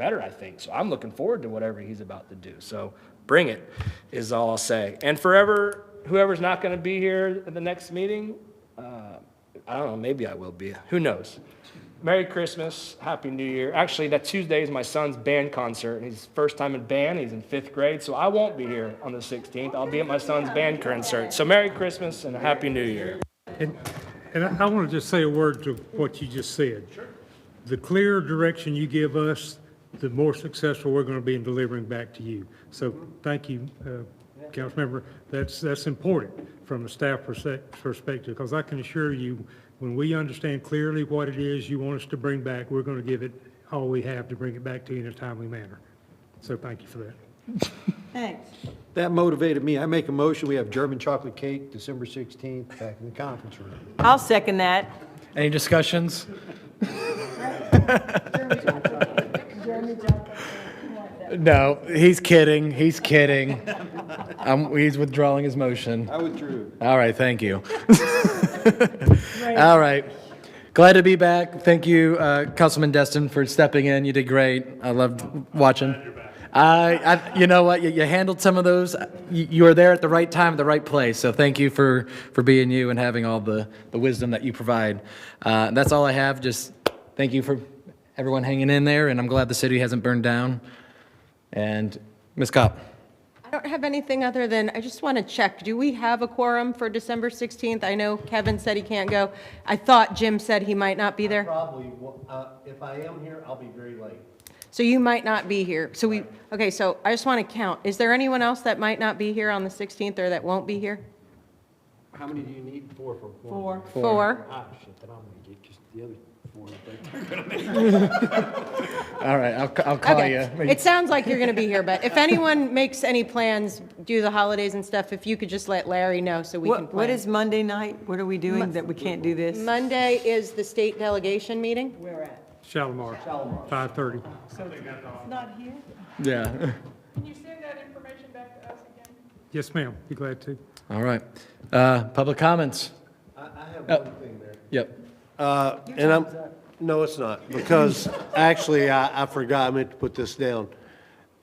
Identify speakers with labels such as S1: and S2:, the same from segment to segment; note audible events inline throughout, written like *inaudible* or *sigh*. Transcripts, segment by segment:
S1: better, I think. So I'm looking forward to whatever he's about to do. So bring it, is all I'll say. And forever, whoever's not going to be here at the next meeting, uh, I don't know, maybe I will be. Who knows? Merry Christmas, Happy New Year. Actually, that Tuesday is my son's band concert, and he's first time in band. He's in fifth grade, so I won't be here on the 16th. I'll be at my son's band concert. So Merry Christmas and a Happy New Year.
S2: And, and I want to just say a word to what you just said. The clearer direction you give us, the more successful we're going to be in delivering back to you. So thank you, uh, Councilmember. That's, that's important from a staff perse- perspective, because I can assure you, when we understand clearly what it is you want us to bring back, we're going to give it all we have to bring it back to you in a timely manner. So thank you for that.
S3: Thanks.
S4: That motivated me. I make a motion, we have German chocolate cake, December 16th, back in the conference room.
S3: I'll second that.
S5: Any discussions? *laughs* No, he's kidding. He's kidding. Um, he's withdrawing his motion.
S4: I withdrew.
S5: All right, thank you. All right. Glad to be back. Thank you, uh, Councilman Destin, for stepping in. You did great. I loved watching. I, I, you know what? You, you handled some of those. You, you were there at the right time, at the right place. So thank you for, for being you and having all the, the wisdom that you provide. Uh, that's all I have. Just thank you for everyone hanging in there, and I'm glad the city hasn't burned down. And Ms. Cop.
S3: I don't have anything other than, I just want to check, do we have a quorum for December 16th? I know Kevin said he can't go. I thought Jim said he might not be there,
S4: Probably, will- uh, if I am here, I'll be very late.
S3: so you might not be here. So we, okay, so I just want to count. Is there anyone else that might not be here on the 16th or that won't be here?
S4: How many do you need? Four for four?
S3: Four.
S4: Ah, shit, then I'm gonna get just the other four.
S5: All right, I'll, I'll call
S3: Okay.
S5: *laughs* you.
S3: It sounds like you're going to be here, but if anyone makes any plans, do the holidays and stuff, if you could just let Larry know so we can
S6: What,
S3: plan.
S6: what is Monday night? What are we doing that we can't do this?
S3: Monday is the state delegation meeting?
S2: Shalimar, 5:30.
S5: yeah.
S7: Can you send that information back to us again?
S2: Yes, ma'am. Be glad to.
S5: All right. Uh, Public comments? Oh.
S4: I, I have one thing there.
S5: Yep.
S4: Uh, and I'm, no, it's not, because actually, I, I forgot, I meant to put this down.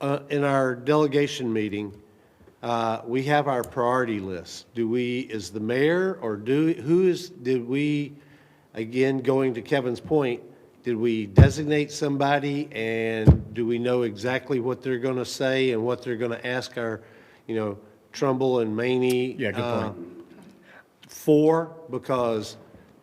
S4: Uh, in our delegation meeting, uh, we have our priority list. Do we, is the mayor, or do, who is, did we, again, going to Kevin's point, did we designate somebody, and do we know exactly what they're gonna say and what they're gonna ask our, you know, Trumbull and Maney?
S5: Yeah, good
S4: uh,
S5: point.
S4: four because,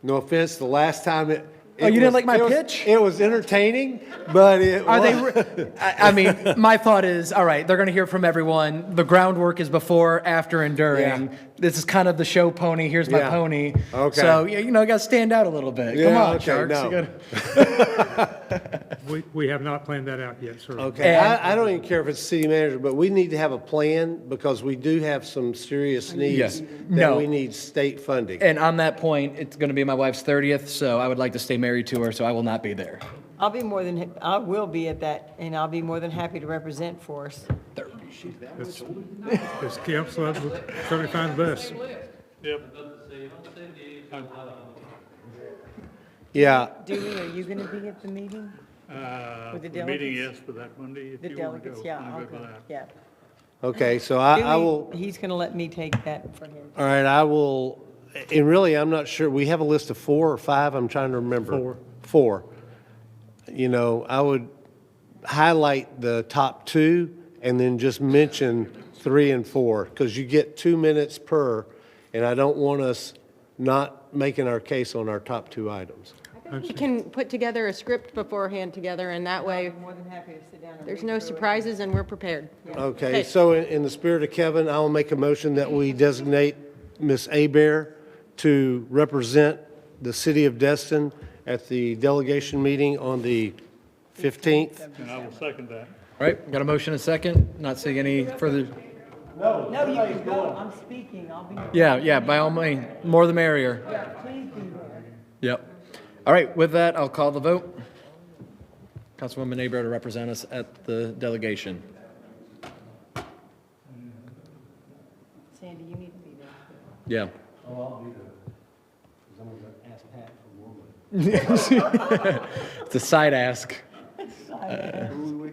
S4: no offense, the last time it.
S5: Oh,
S4: it
S5: you didn't
S4: was-
S5: like my
S4: it was-
S5: pitch?
S4: It was entertaining, but it
S5: Are they,
S4: wa-
S5: re- I I mean, my thought is, all right, they're going to hear from everyone. The groundwork is before, after, and during.
S4: Yeah.
S5: This is kind of the show pony, here's my
S4: Yeah.
S5: pony.
S4: Okay.
S5: So, yeah, you know, you got to stand out a little bit. Come
S4: Yeah,
S5: on,
S4: okay,
S5: Sharks. You
S4: no.
S5: gotta-
S2: We, we have not planned that out yet, sir.
S4: Okay, I, I don't even care if it's city manager, but we need to have a plan because we do have some serious
S5: Yes.
S4: needs
S5: No.
S4: that we need state funding.
S5: And on that point, it's going to be my wife's 30th, so I would like to stay married to her, so I will not be there.
S6: I'll be more than, hap- I will be at that, and I'll be more than happy to represent for us.
S2: This council, I would certainly find the best.
S8: Uh,
S4: Yeah,
S6: Dewey, are you going to be at the meeting?
S8: Uh,
S6: With the
S8: the meeting
S6: delegates?
S8: yes, but that Monday, if
S6: The
S8: you want to
S6: delegates,
S8: go,
S6: yeah,
S8: I'm
S6: I'll
S8: good for
S6: go,
S8: that.
S6: yeah.
S4: okay, so I, I
S6: Dewey,
S4: will,
S6: He's going to let me take that for him.
S4: all right, I will, and really, I'm not sure, we have a list of four or five, I'm trying to remember.
S2: Four.
S4: Four. You know, I would highlight the top two and then just mention three and four, because you get two minutes per, and I don't want us not making our case on our top two items.
S3: We can put together a script beforehand together, and that way,
S6: More than happy to sit down and.
S3: there's
S6: read
S3: no
S6: through it.
S3: surprises and we're prepared.
S4: Okay, so in, in the spirit of Kevin, I'll make a motion that we designate Ms. Abear to represent the city of Destin at the delegation meeting on the 15th.
S8: And I will second that.
S5: All right, got a motion and a second? Not seeing any further.
S6: No, you can go, I'm speaking, I'll be,
S5: Yeah, yeah, by all means, more the merrier.
S6: please be there.
S5: Yep. All right, with that, I'll call the vote. Councilwoman Nabro to represent us at the delegation.
S6: Sandy, you need to be there.
S5: Yeah. *laughs* It's a side ask.
S6: I-